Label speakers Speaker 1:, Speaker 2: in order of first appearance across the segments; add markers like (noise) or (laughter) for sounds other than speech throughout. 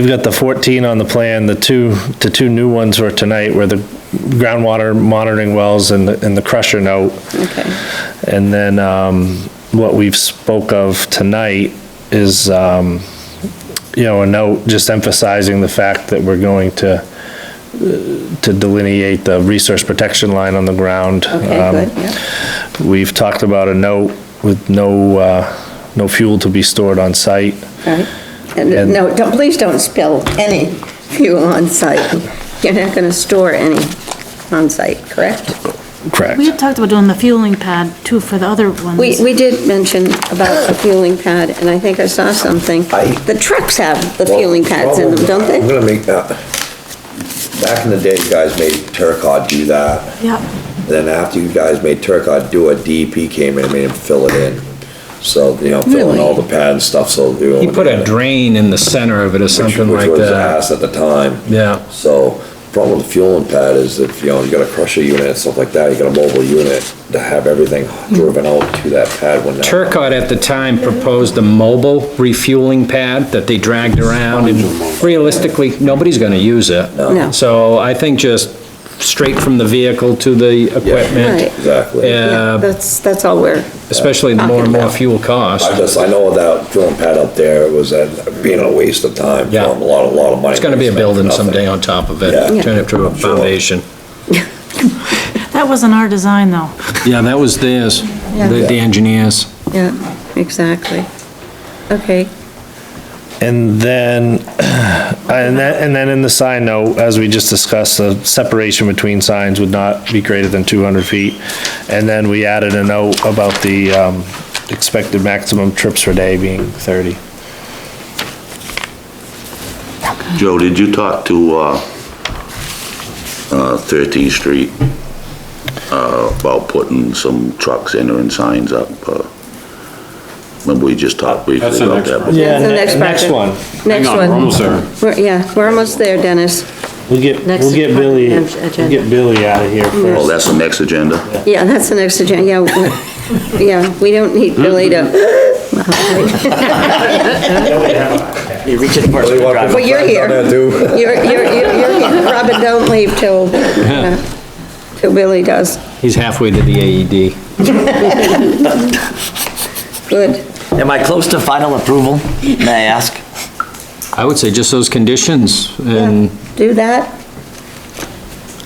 Speaker 1: We've got the 14 on the plan, the two, the two new ones were tonight, where the groundwater monitoring wells and the, and the crusher note.
Speaker 2: Okay,
Speaker 1: And then, um, what we've spoke of tonight is, um, you know, a note just emphasizing the fact that we're going to, uh, to delineate the resource protection line on the ground.
Speaker 2: okay,
Speaker 1: Um,
Speaker 2: good, yeah,
Speaker 1: We've talked about a note with no, uh, no fuel to be stored on site.
Speaker 2: all right. And
Speaker 1: and-
Speaker 2: no, don't, please don't spill any fuel on site. You're not gonna store any on site, correct?
Speaker 1: Correct.
Speaker 3: We had talked about doing the fueling pad too for the other ones.
Speaker 2: We, we did mention about the fueling pad, and I think I saw something.
Speaker 4: I-
Speaker 2: The trucks have the fueling pads in them, don't
Speaker 4: I'm
Speaker 2: they?
Speaker 4: gonna make that, back in the day, you guys made Turcot do that.
Speaker 3: Yeah,
Speaker 4: Then after you guys made Turcot do it, DEP came in and made him fill it in. So, you know, filling all the pad and stuff, so.
Speaker 5: He put a drain in the center of it or something like
Speaker 4: Which was
Speaker 5: that.
Speaker 4: ass at the time.
Speaker 5: Yeah,
Speaker 4: So, problem with the fueling pad is if, you know, you got a crusher unit and stuff like that, you got a mobile unit to have everything driven out to that pad when that.
Speaker 5: Turcot at the time proposed a mobile refueling pad that they dragged around and realistically, nobody's gonna use it.
Speaker 2: No.
Speaker 5: So I think just straight from the vehicle to the
Speaker 2: Right.
Speaker 5: equipment,
Speaker 4: Exactly.
Speaker 2: Yeah,
Speaker 5: uh,
Speaker 2: That's, that's all we're,
Speaker 5: especially the more and more
Speaker 2: Talking
Speaker 5: fuel costs.
Speaker 4: I just, I know that drilling pad up there was uh, being a waste of time,
Speaker 5: Yeah.
Speaker 4: throwing a lot, a lot of money.
Speaker 5: It's gonna be a building someday on top of it,
Speaker 4: Yeah.
Speaker 5: turn it to a foundation.
Speaker 3: that wasn't our design though.
Speaker 5: Yeah, that was theirs,
Speaker 2: Yeah.
Speaker 5: the the engineers.
Speaker 2: yeah, exactly. Okay,
Speaker 1: And then, (clears throat) and then, and then in the sign note, as we just discussed, the separation between signs would not be greater than 200 feet. And then we added a note about the um, expected maximum trips per day being 30.
Speaker 6: Joe, did you talk to, uh, uh, 13th Street, uh, about putting some trucks in there and signs up? uh, Remember we just talked briefly
Speaker 7: That's the
Speaker 6: about
Speaker 7: next
Speaker 6: that?
Speaker 7: one.
Speaker 2: Yeah, the next
Speaker 1: Next
Speaker 2: project.
Speaker 1: one.
Speaker 7: Hang
Speaker 2: next
Speaker 7: on, we're
Speaker 2: one.
Speaker 7: almost there.
Speaker 2: We're, yeah, we're almost there, Dennis.
Speaker 1: We'll get,
Speaker 2: Next Mm.
Speaker 1: we'll get Billy,
Speaker 2: ag-
Speaker 1: we'll get Billy out of here
Speaker 6: Oh,
Speaker 1: first.
Speaker 6: that's the next agenda?
Speaker 2: Yeah, that's the next agenda, yeah, we- yeah, we don't need
Speaker 7: Hmm?
Speaker 2: Billy to,
Speaker 8: You reach it first, drive.
Speaker 2: but you're here.
Speaker 4: here.
Speaker 2: You're, you're, you're, you're
Speaker 8: (laughs)
Speaker 2: here. Robin, don't leave till, uh, till Billy does.
Speaker 5: He's halfway to the E AED.
Speaker 2: Good.
Speaker 8: Am I close to final approval, may I ask?
Speaker 5: I would say just those conditions and
Speaker 2: Do that.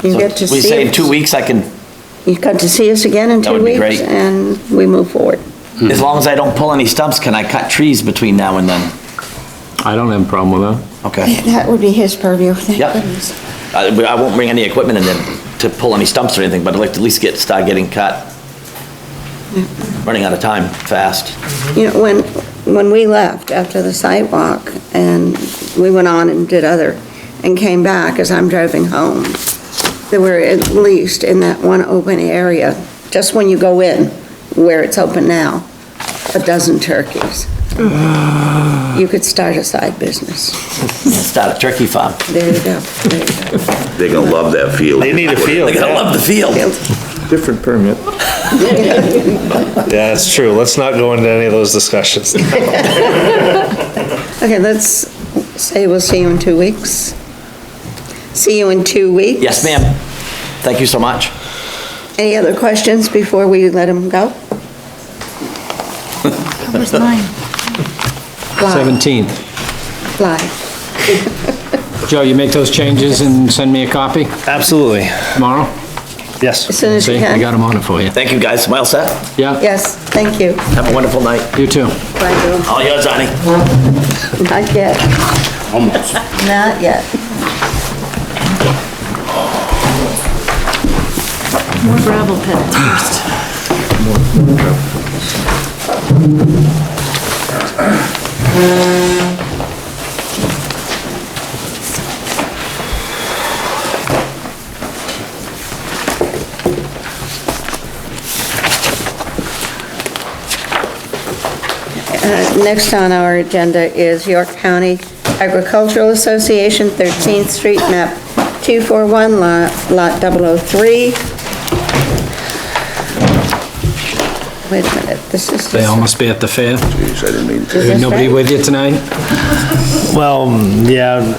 Speaker 2: You get to
Speaker 8: We say
Speaker 2: see,
Speaker 8: in two weeks, I can,
Speaker 2: you got to see us again in
Speaker 8: That
Speaker 2: two
Speaker 8: would be
Speaker 2: weeks
Speaker 8: great.
Speaker 2: and we move forward.
Speaker 8: as long as I don't pull any stumps, can I cut trees between now and then?
Speaker 5: I don't have a problem with that.
Speaker 8: Okay.
Speaker 2: That would be his purview, thank
Speaker 8: Yep. I, I won't bring any equipment in then to pull any stumps or anything, but I'd like to at least get, start getting cut. Running out of time fast.
Speaker 2: You know, when, when we left after the sidewalk and we went on and did other, and came back as I'm driving home, there were at least in that one open area, just when you go in, where it's open now, a dozen turkeys. You could start a side business.
Speaker 8: Start a turkey farm.
Speaker 2: There you go, there you go.
Speaker 6: They're gonna love that field.
Speaker 1: They need a field,
Speaker 8: They're gonna
Speaker 1: yeah.
Speaker 8: love the field.
Speaker 7: Different permit.
Speaker 1: Yeah, that's true. Let's not go into any of those discussions.
Speaker 2: Okay, let's say we'll see you in two weeks. See you in two weeks.
Speaker 8: Yes, ma'am. Thank you so much.
Speaker 2: Any other questions before we let him go?
Speaker 3: Where's mine?
Speaker 2: Fly,
Speaker 5: 17th.
Speaker 2: fly.
Speaker 5: Joe, you make those changes and send me a copy
Speaker 1: (laughs) Absolutely.
Speaker 5: tomorrow?
Speaker 2: As
Speaker 1: Yes.
Speaker 2: soon as
Speaker 5: See,
Speaker 2: you
Speaker 5: I got
Speaker 2: can.
Speaker 5: them on it for you.
Speaker 8: Thank you, guys. Well set.
Speaker 5: Yeah,
Speaker 2: Yes, thank you.
Speaker 8: Have a wonderful night.
Speaker 5: you too.
Speaker 2: Bye, Bill.
Speaker 8: All yours, Arnie.
Speaker 2: Not yet. Almost. Not yet.
Speaker 3: More gravel pits first.
Speaker 2: Uh, Next on our agenda is York County Agricultural Association, 13th Street, map 241, oh lot lot 003. Wait a minute, this is
Speaker 5: They all
Speaker 2: just,
Speaker 5: must be at the fair.
Speaker 4: Jeez, I didn't mean to.
Speaker 2: is this
Speaker 5: Nobody
Speaker 2: right?
Speaker 5: with you tonight?
Speaker 9: Well, yeah,